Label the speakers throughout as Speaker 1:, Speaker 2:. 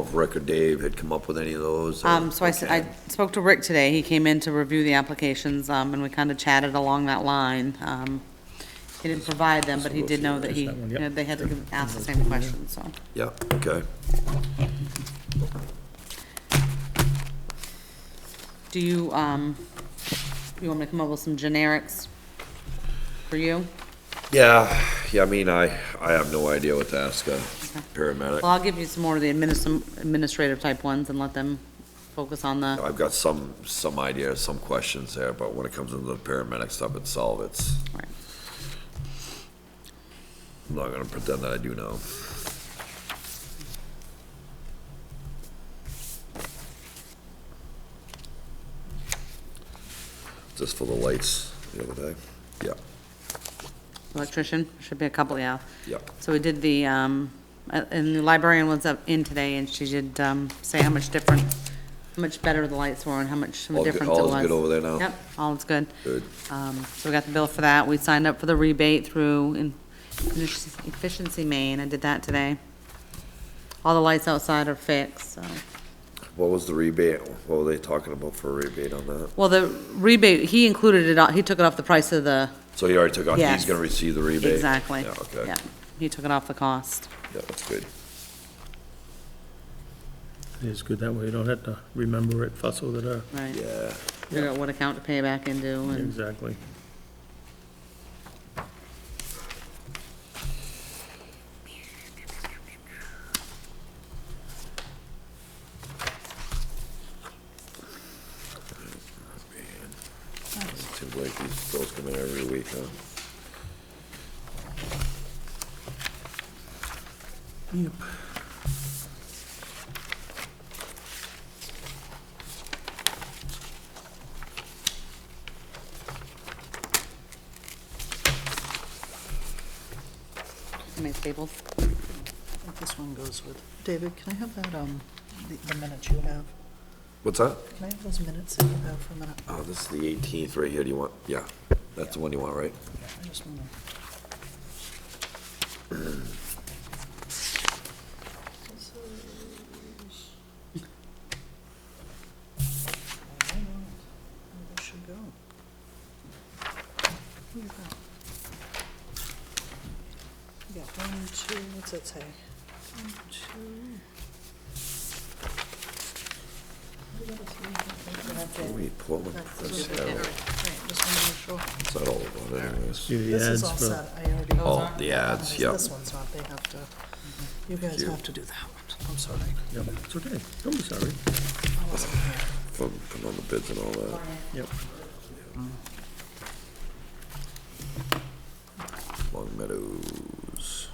Speaker 1: if Rick or Dave had come up with any of those. or-
Speaker 2: Um, so I, s- I spoke to Rick today, he came in to review the applications, um, and we kind of chatted along that line. Um, He didn't provide them, but he did know that he,
Speaker 3: That one, yep.
Speaker 2: you know, they had to give- ask the same question, so.
Speaker 1: Yeah, okay.
Speaker 2: Do you, um, you want me to come up with some generics for you?
Speaker 1: Yeah, yeah, I mean, I, I have no idea what to ask a paramedic.
Speaker 2: Well, I'll give you some more of the adminis- administrative type ones and let them focus on the,
Speaker 1: I've got some, some idea, some questions there, but when it comes into the paramedic stuff itself, it's,
Speaker 2: Right.
Speaker 1: I'm not gonna pretend that I do know. Just for the lights the other day. Yeah,
Speaker 2: electrician, should be a couple, yeah.
Speaker 1: yeah,
Speaker 2: So we did the, um, uh, and the librarian was up in today, and she did, um, say how much different, how much better the lights were and how much of
Speaker 1: All
Speaker 2: a
Speaker 1: good-
Speaker 2: difference it was.
Speaker 1: all is good over there now?
Speaker 2: Yep, all is good.
Speaker 1: good.
Speaker 2: Um, so we got the bill for that, we signed up for the rebate through in- Efficiency Maine, I did that today. All the lights outside are fixed, so.
Speaker 1: What was the rebate? What were they talking about for a rebate on that?
Speaker 2: Well, the rebate, he included it, on- he took it off the price of the,
Speaker 1: So he already took out, he's
Speaker 2: Yes.
Speaker 1: gonna receive the rebate?
Speaker 2: exactly.
Speaker 1: Yeah, okay.
Speaker 2: Yeah, He took it off the cost.
Speaker 1: Yeah, that's good.
Speaker 3: It's good, that way you don't have to remember it, fuss over it,
Speaker 2: Right,
Speaker 1: Yeah,
Speaker 2: figure out what account to pay back into and,
Speaker 3: exactly.
Speaker 1: seems like these bills come in every week, huh?
Speaker 3: Yep.
Speaker 2: make staples.
Speaker 4: This one goes with, David, can I have that, um, the- the minutes you have?
Speaker 1: What's that?
Speaker 4: Can I have those minutes that you have for a minute?
Speaker 1: Oh, this is the eighteenth right here. Do you want, yeah, that's the one you want, right?
Speaker 4: I just wanna. Why not? Where this should go. Look at that. You got one, two, what's that say? One, two. You got a three, you got
Speaker 1: Let
Speaker 4: that.
Speaker 1: me pull them.
Speaker 4: That's a
Speaker 1: That's
Speaker 4: little
Speaker 1: that
Speaker 4: bit
Speaker 1: all-
Speaker 4: different. Right, just wanna make sure.
Speaker 1: that's that all of it anyways.
Speaker 3: Do the
Speaker 4: This
Speaker 3: ads
Speaker 4: is all
Speaker 3: for,
Speaker 4: set, I already.
Speaker 1: Oh, the ads,
Speaker 4: This-
Speaker 1: yep.
Speaker 4: This one's not, they have to, you guys
Speaker 1: you.
Speaker 4: have to do that one, I'm sorry.
Speaker 3: yep, it's okay, don't be sorry.
Speaker 4: I wasn't here.
Speaker 1: From, from all the bids and all that.
Speaker 3: Yep,
Speaker 1: Long Meadows.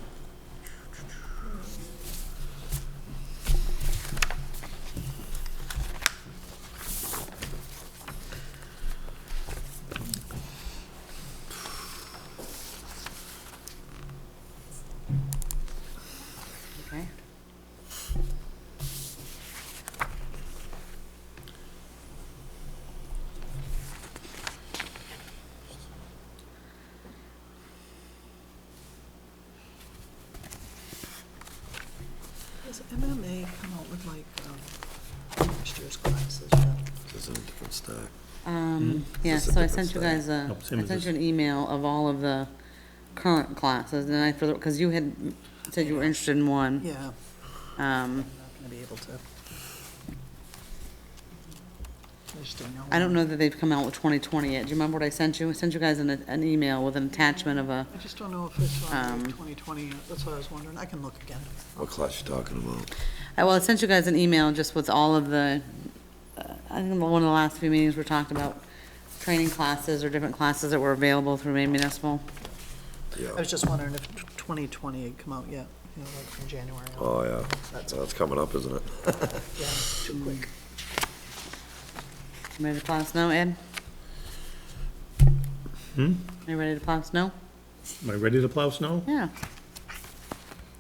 Speaker 3: Hmm?
Speaker 2: Okay.
Speaker 4: Does MMA come out with like, um, next year's classes yet?
Speaker 1: This is a different stack.
Speaker 2: Um, yeah,
Speaker 1: Is this a
Speaker 2: so I
Speaker 1: different
Speaker 2: sent you guys a,
Speaker 3: Nope, same
Speaker 2: I
Speaker 3: as
Speaker 2: sent
Speaker 3: this.
Speaker 2: you an email of all of the current classes, and I, because you had said you were interested in one.
Speaker 4: Yeah,
Speaker 2: Um,
Speaker 4: I'm not gonna be able to. I just don't know.
Speaker 2: I don't know that they've come out with twenty twenty yet. Do you remember what I sent you? I sent you guys an, an email with an attachment of a,
Speaker 4: I just don't know if it's on
Speaker 2: Um,
Speaker 4: twenty twenty, that's what I was wondering, I can look again.
Speaker 1: What class you talking about?
Speaker 2: I- well, I sent you guys an email just with all of the, uh, I think one of the last few meetings we talked about training classes or different classes that were available through Maine Municipal.
Speaker 4: I
Speaker 1: Yeah.
Speaker 4: was just wondering if twenty twenty had come out yet, you know, like from January. on.
Speaker 1: Oh, yeah. That's, that's coming up, isn't it?
Speaker 4: Yeah, too quick.
Speaker 2: You Ready to plow snow, Ed?
Speaker 3: Hmm?
Speaker 2: You ready to plow snow?
Speaker 3: am I ready to plow snow?
Speaker 2: Yeah.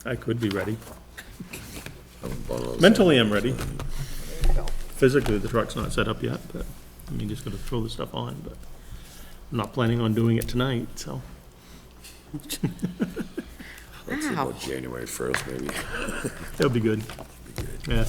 Speaker 3: I could be ready.
Speaker 1: Haven't bought those.
Speaker 3: Mentally, I'm ready.
Speaker 4: There you go.
Speaker 3: Physically, the truck's not set up yet, but, I mean, just gonna throw the stuff on, but I'm not planning on doing it tonight, so.
Speaker 1: Let's see
Speaker 2: Wow.
Speaker 1: about January first, maybe.
Speaker 3: That'll be good. Yeah,